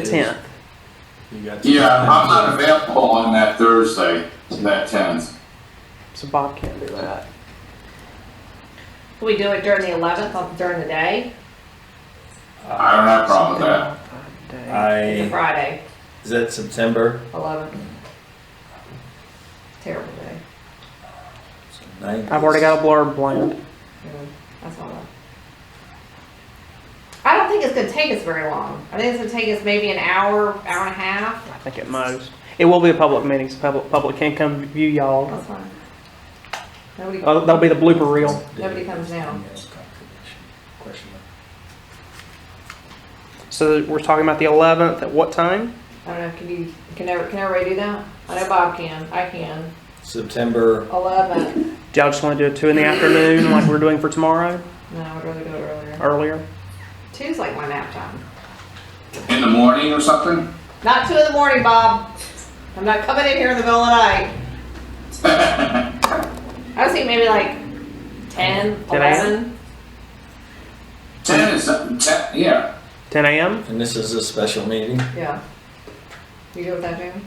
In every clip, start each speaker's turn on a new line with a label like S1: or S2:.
S1: the
S2: Is-
S1: tenth.
S2: You got some-
S3: Yeah, I'm not available on that Thursday, that tenth.
S1: So Bob can't do that.
S4: Can we do it during the eleventh, on during the day,
S3: I don't have a problem with that.
S1: that.
S4: It's a
S2: I,
S4: Friday,
S2: is that September
S4: eleventh? Terrible day.
S2: ninth?
S1: I've already got a blurb planned.
S4: Mm, That's all. I- I don't think it's gonna take us very long. I think it's gonna take us maybe an hour, hour and a half.
S1: I think at most. It will be a public meeting, so public, public can come view y'all.
S4: That's fine. Nobody,
S1: Uh, that'll be the blooper reel.
S4: nobody comes down.
S1: So we're talking about the eleventh at what time?
S4: I don't know, can you, can ever, can everybody do that? I know Bob can, I can.
S2: September,
S4: Eleven,
S1: Do y'all just want to do it two in the afternoon like we're doing for tomorrow,
S4: no, I'd rather do it earlier.
S1: earlier?
S4: Two's like my nap time.
S3: In the morning or something?
S4: Not two in the morning, Bob. I'm not coming in here in the middle of the night. I was thinking maybe like 10,
S1: 10 a.m.?
S4: 11.
S3: Ten is, ten, yeah.
S1: Ten a.m.
S2: and this is a special meeting.
S4: Yeah. You good with that, Jamie?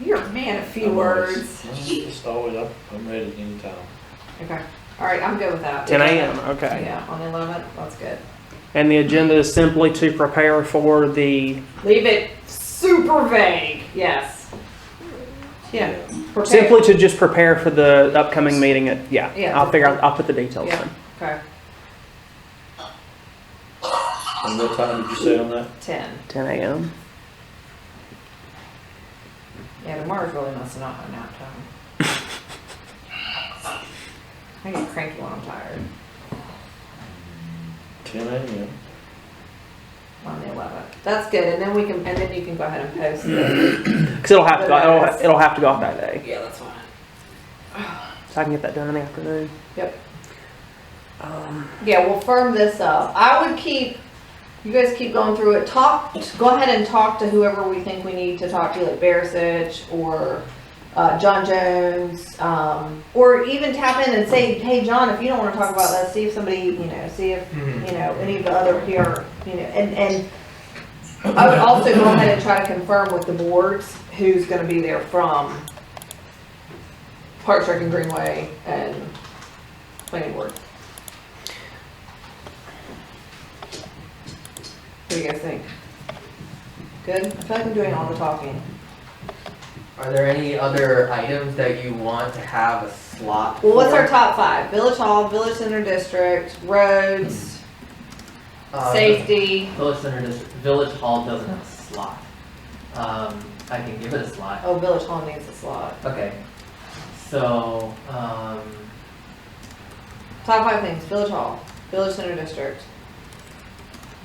S4: You're a man of few
S5: I'm always-
S4: words.
S5: I'm Just always up, I'm ready anytime.
S4: Okay. All right, I'm good with that.
S1: Ten a.m. Okay.
S4: Yeah, on the 11th. That's good.
S1: And the agenda is simply to prepare for the
S4: Leave it super vague. Yes. Yeah. Prepare-
S1: simply to just prepare for the upcoming meeting. At, yeah.
S4: Yeah.
S1: I'll figure out. I'll put the details
S4: Yeah.
S1: in.
S4: Okay.
S5: And what time did you say on that?
S4: 10.
S1: Ten a.m.
S4: Yeah, tomorrow's really must not my nap time. I get cranky when I'm tired.
S5: Ten AM.
S4: on the 11th. That's good, and then we can, and then you can go ahead and post it.
S1: Because it'll have to. Go, it'll, it'll have to go off that day.
S4: Yeah, that's fine.
S1: So I can get that done in the afternoon.
S4: Yep.
S1: Um,
S4: Yeah, we'll firm this up. I would keep, you guys keep going through it. Talk, go ahead and talk to whoever we think we need to talk to, like Barisic or uh, John Jones, um, or even tap in and say, hey, John, if you don't want to talk about that, see if somebody, you know, see if, you know, any of the other here, you know, and, and I would also go ahead and try to confirm with the boards who's going to be there from Park Rec and Greenway and Planning Board. What do you guys think? Good? I feel like I'm doing all the talking.
S6: Are there any other items that you want to have a slot?
S4: Well, what's our
S6: for?
S4: top five? Village Hall, Village Center District, roads, Uh,
S6: Um,
S4: safety.
S6: Village Center District, Village Hall doesn't have a slot. Um, I can give it a slot.
S4: Oh, Village Hall needs a slot.
S6: Okay. So, um,
S4: Top five things, Village Hall, Village Center District,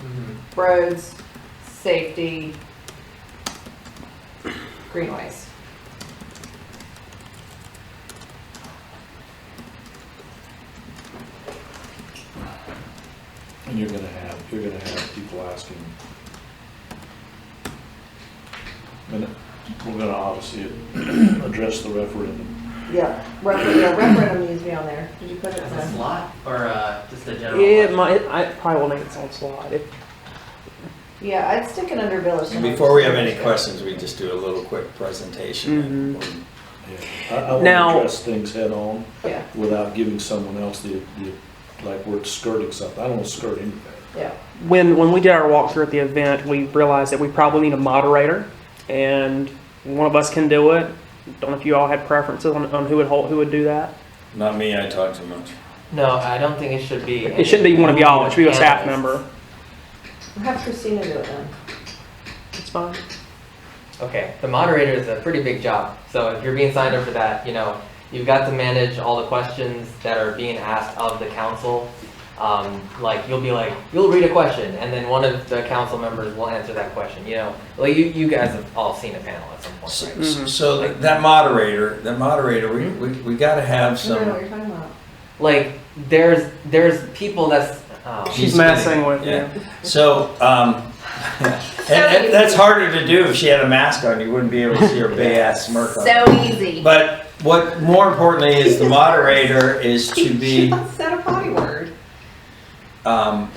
S6: mhm.
S4: roads, safety, greenways.
S5: And you're gonna have, you're gonna have people asking. And we're gonna obviously address the referendum.
S4: Yeah, referendum, yeah, referendum needs to be on there. Did you put it
S6: as
S4: in?
S6: a slot or, uh, just a general?
S1: yeah,
S6: one?
S1: my, it, I probably will make its own slot. If,
S4: Yeah, I'd stick it under Village
S2: And
S4: Center.
S2: before we have any
S4: District.
S2: questions, we just do a little quick presentation.
S5: Yeah. I, I wanna
S1: Now-
S5: address things head on
S4: Yeah,
S5: without giving someone else the, the, like we're skirting something. I don't wanna skirt anything.
S4: yeah.
S1: when when we did our walkthrough at the event, we realized that we probably need a moderator, and one of us can do it. Don't know if you all had preferences on, on who would hold, who would do that.
S2: Not me, I talk too much.
S6: No, I don't think it should be.
S1: It shouldn't be one of y'all. It should be a staff member.
S4: We'll have Christina do it then.
S1: It's fine.
S6: Okay, the moderator is a pretty big job, so if you're being signed up for that, you know, you've got to manage all the questions that are being asked of the council. Um, like, you'll be like, you'll read a question, and then one of the council members will answer that question, you know? Like, you, you guys have all seen a panel at some point,
S2: So,
S6: right?
S1: Mhm.
S2: so that- that moderator, that moderator, we, we, we gotta have
S4: I don't know what
S2: some.
S4: you're talking about.
S6: Like, there's, there's people that's, oh.
S1: She's,
S2: She's
S1: messing
S2: getting-
S1: with
S2: yeah.
S1: you.
S2: So, um, and, and that's harder to do. If she had a mask on, you wouldn't be able to see her big ass smirk on.
S4: So easy.
S2: But what more importantly is the moderator is to
S4: She
S2: be,
S4: just said a potty word.
S2: um,